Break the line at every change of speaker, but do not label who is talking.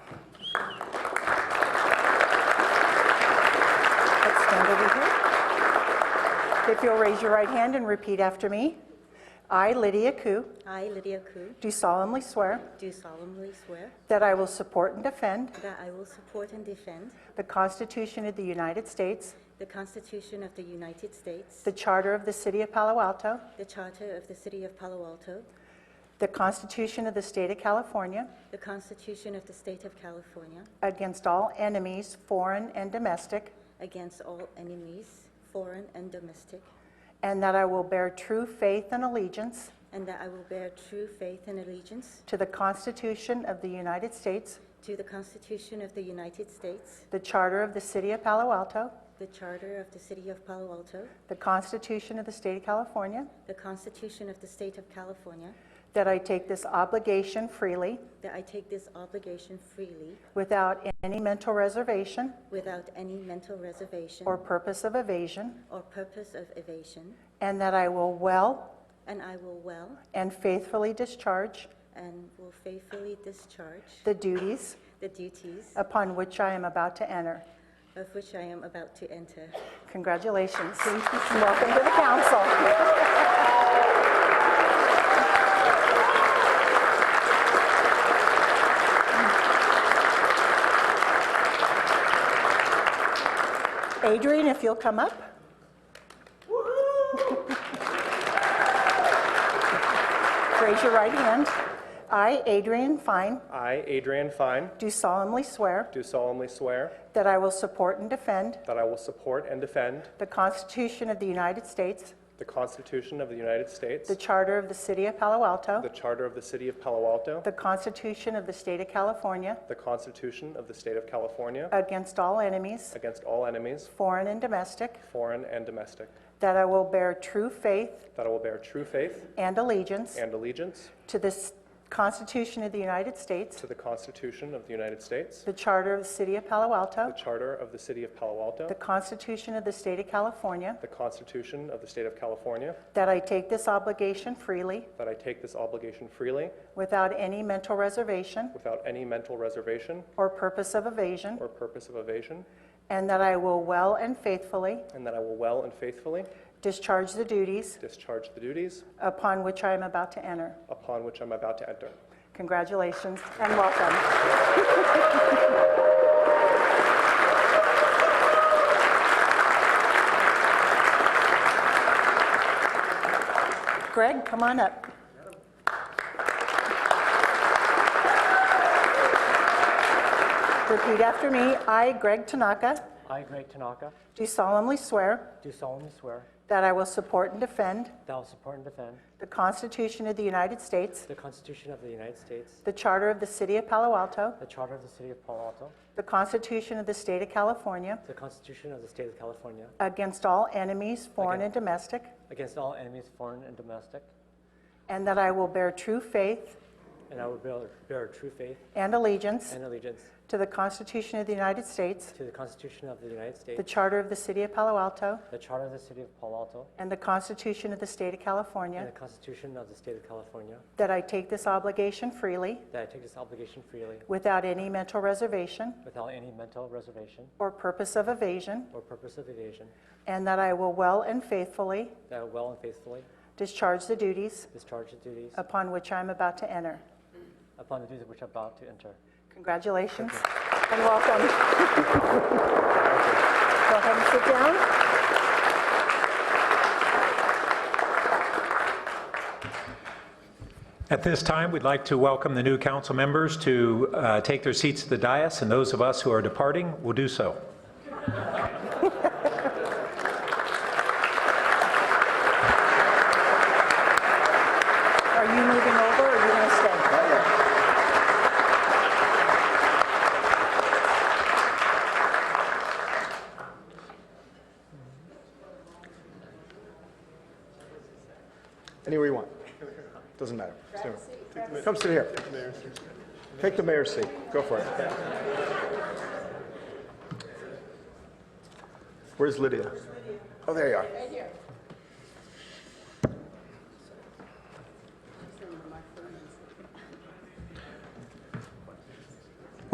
over here. If you'll raise your right hand and repeat after me. I, Lydia Ku,
I, Lydia Ku,
do solemnly swear
do solemnly swear
that I will support and defend
that I will support and defend
the Constitution of the United States,
the Constitution of the United States,
the Charter of the City of Palo Alto,
the Charter of the City of Palo Alto,
the Constitution of the State of California,
the Constitution of the State of California,
against all enemies, foreign and domestic,
against all enemies, foreign and domestic,
and that I will bear true faith and allegiance
and that I will bear true faith and allegiance
to the Constitution of the United States,
to the Constitution of the United States,
the Charter of the City of Palo Alto,
the Charter of the City of Palo Alto,
the Constitution of the State of California,
the Constitution of the State of California,
that I take this obligation freely
that I take this obligation freely
without any mental reservation
without any mental reservation
or purpose of evasion,
or purpose of evasion,
and that I will well
and I will well
and faithfully discharge
and will faithfully discharge
the duties
the duties
upon which I am about to enter.
of which I am about to enter.
Congratulations. Welcome to the council. Adrian, if you'll come up. Raise your right hand. I, Adrian Fine,
I, Adrian Fine,
do solemnly swear
do solemnly swear
that I will support and defend
that I will support and defend
the Constitution of the United States,
the Constitution of the United States,
the Charter of the City of Palo Alto,
the Charter of the City of Palo Alto,
the Constitution of the State of California,
the Constitution of the State of California,
against all enemies,
against all enemies,
foreign and domestic,
foreign and domestic,
that I will bear true faith
that I will bear true faith
and allegiance
and allegiance
to the s- Constitution of the United States,
to the Constitution of the United States,
the Charter of the City of Palo
the
Alto,
Charter of the City of Palo
the
Alto,
Constitution of the State of California,
the Constitution of the State of California,
that I take this obligation freely
that I take this obligation freely
without any mental reservation
without any mental reservation
or purpose of evasion,
or purpose of evasion,
and that I will well and faithfully
and that I will well and faithfully
discharge the duties
discharge the duties
upon which I am about to enter.
upon which I'm about to enter.
Congratulations and welcome. Greg, come on up. Repeat after me. I, Greg Tanaka,
I, Greg Tanaka,
do solemnly swear
do solemnly swear
that I will support and defend
that I will support and defend
the Constitution of the United States,
the Constitution of the United States,
the Charter of the City of Palo Alto,
the Charter of the City of Palo Alto,
The Constitution of the State of California,
the Constitution of the State of California,
against all enemies, foreign
Again.
and domestic,
against all enemies, foreign and domestic,
and that I will bear true faith
and I will bear, bear true faith
and allegiance
and allegiance
to the Constitution of the United States,
to the Constitution of the United
the
States,
Charter of the City of Palo Alto,
the Charter of the City of Palo Alto,
and the Constitution of the State of
and
California,
the Constitution of the State of California,
that I take this obligation freely,
that I take this obligation freely
without any mental reservation
without any mental reservation
or purpose of evasion,
or purpose of evasion,
and that I will well and faithfully
that I will well and faithfully
discharge the duties
discharge the duties
upon which I am about to enter.
upon the duties which I'm about to enter.
Congratulations and welcome. Go ahead and sit down.
At this time, we'd like to welcome the new council members to uh, take their seats at the dais, and those of us who are departing will do so.
Are you moving over or are you going to stay?
Anywhere you want. Doesn't matter. Just anywhere. Come sit here. Take the mayor's seat. Go for it. Where's Lydia? Oh, there you are. Right here.